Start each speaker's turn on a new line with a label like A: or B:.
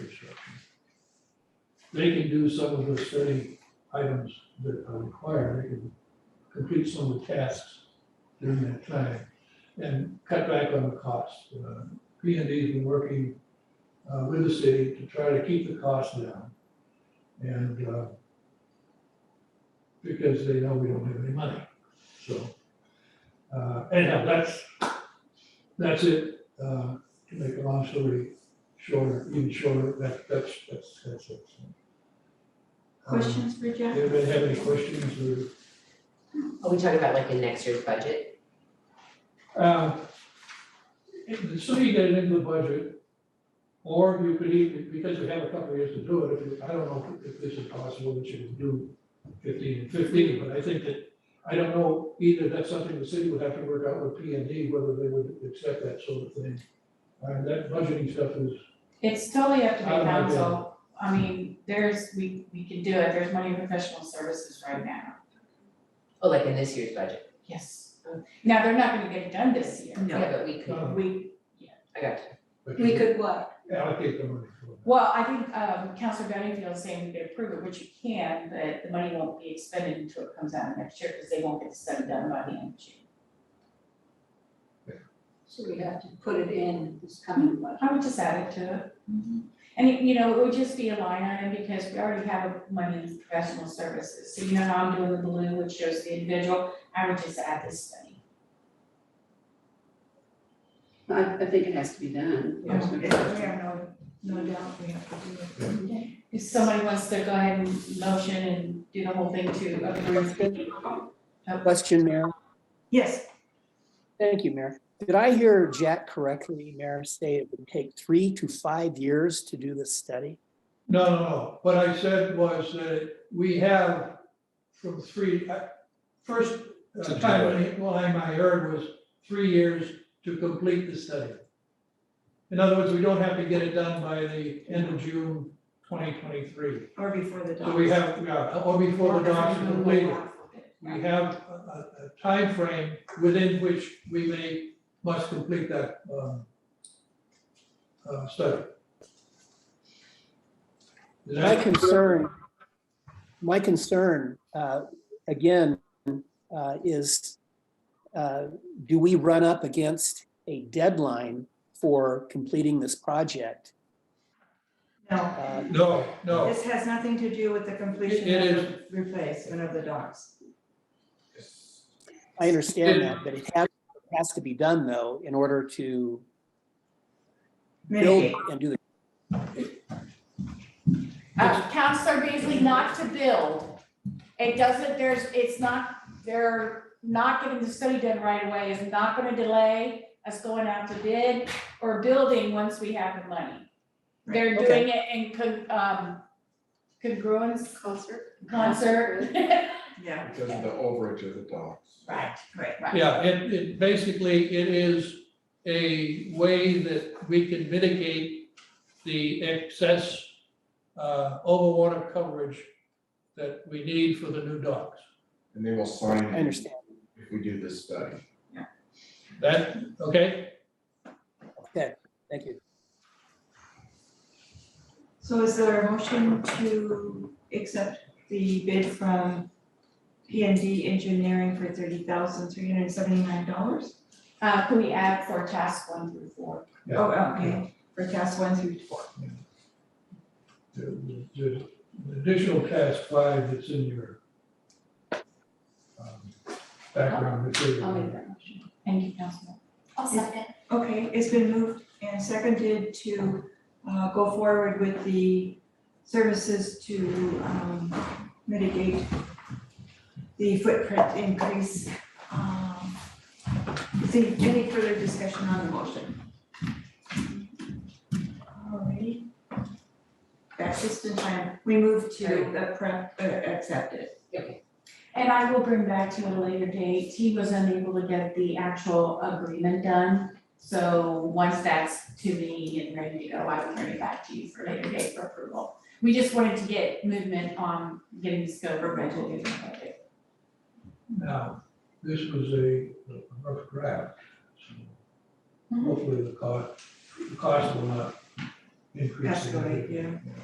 A: they can do some of the study items that are required, they can complete some of the tasks during that time and cut back on the cost. Uh, P and D's been working uh, with the city to try to keep the cost down. And uh, because they know we don't have any money, so. uh, Anyhow, that's, that's it, Uh, to make a long story shorter, even shorter, that, that's, that's, that's it. Um,
B: Questions for Jeff?
A: Anybody have any questions
C: Are we talking about like in next year's budget?
A: or? Um, The city get it into the budget, or you could even, because we have a couple of years to do it, if you- I don't know if this is possible that you can do fifteen and fifteen, but I think that, I don't know either, that's something the city would have to work out with P and D, whether they would accept that sort of thing. And that budgeting stuff is,
D: It's totally up to the
A: I don't know, yeah.
D: council. I mean, there's, we, we can do it. There's money in professional services right now.
C: Oh, like in this year's budget?
D: Yes. Now, they're not gonna get it done this year.
C: Yeah, but we could,
A: um,
D: We,
C: I got
A: but
B: We
A: you
B: could what?
A: allocate the money for it.
D: well, I think, um, Counselor Benningfield is saying we could approve it, which you can, but the money won't be expended until it comes out next year, because they won't get the study done by the end of June.
B: So we have to put it in this coming budget.
D: I would just add it to it. And, it- you know, it would just be a line item because we already have money in professional services. So you know how I'm doing the blue, which shows the individual, I would just add this study.
B: I, I think it has to be done.
C: Yeah.
D: no, no doubt we have to do it. If somebody wants to go ahead and motion and do the whole thing to approve.
E: Question, Mayor.
D: Yes.
E: Thank you, Mayor. Did I hear Jack correctly, Mayor, say it would take three to five years to do this study?
A: No, no, no. What I said was that we have from three, I- first uh,
F: To do
A: time, well, I I heard was three years to complete the study. In other words, we don't have to get it done by the end of June twenty twenty-three.
D: Or before the
A: So we have, yeah, or before the docs are completed. We have a, a- a frame within which we may, must complete that, um, uh, study. Is
E: My
A: that-
E: concern, my concern, uh, again, uh, is, uh, do we run up against a deadline for completing this project?
G: No,
E: Uh,
A: No, no,
G: this has nothing to do with the completion
A: It- it
G: of the replacement of the docks.
E: I understand that, but it has, it has to be done, though, in order to build
G: Mitigate,
E: and do the
D: Uh, Counselor Beasley, not to build. It doesn't, there's, it's not, they're not getting the study done right away is not gonna delay us going out to bid or building once we have the money. They're
E: Right,
D: doing it in con, um, congruence,
B: Concert?
D: concert.
G: yeah,
F: Because of the overage of the dogs.
D: Right,
G: right.
A: yeah, it, it, basically, it is a way that we can mitigate the excess, uh, overwater coverage that we need for the new docks.
F: And they will sign
E: I
F: it
E: understand.
F: if we do this study.
A: That, okay?
E: Thank you.
G: So is there a motion to accept the bid from P and D Engineering for thirty thousand three hundred and seventy-nine dollars?
D: Uh, can we add for task one through four?
A: Yeah.
G: Oh, okay, for tasks one through four.
A: The the- the additional task five that's in your um, background
B: I'll
A: material.
B: make that motion.
D: Thank you, Councilman.
H: I'll second.
G: Okay, it's been moved and seconded to uh go forward with the services to um mitigate the footprint increase. Um, is there any further discussion on the motion? Alrighty. That's just in time, we move to the prep, uh, accept it.
D: And I will bring back to you at a later date, he was unable to get the actual agreement done. So once that's to me and ready to go, I will turn it back to you for later date for approval. We just wanted to get movement on getting the scope of rental getting the budget.
A: Now, this was a a rough draft. so Hopefully the cost, the cost will not increase.
G: Escalate,
A: significantly.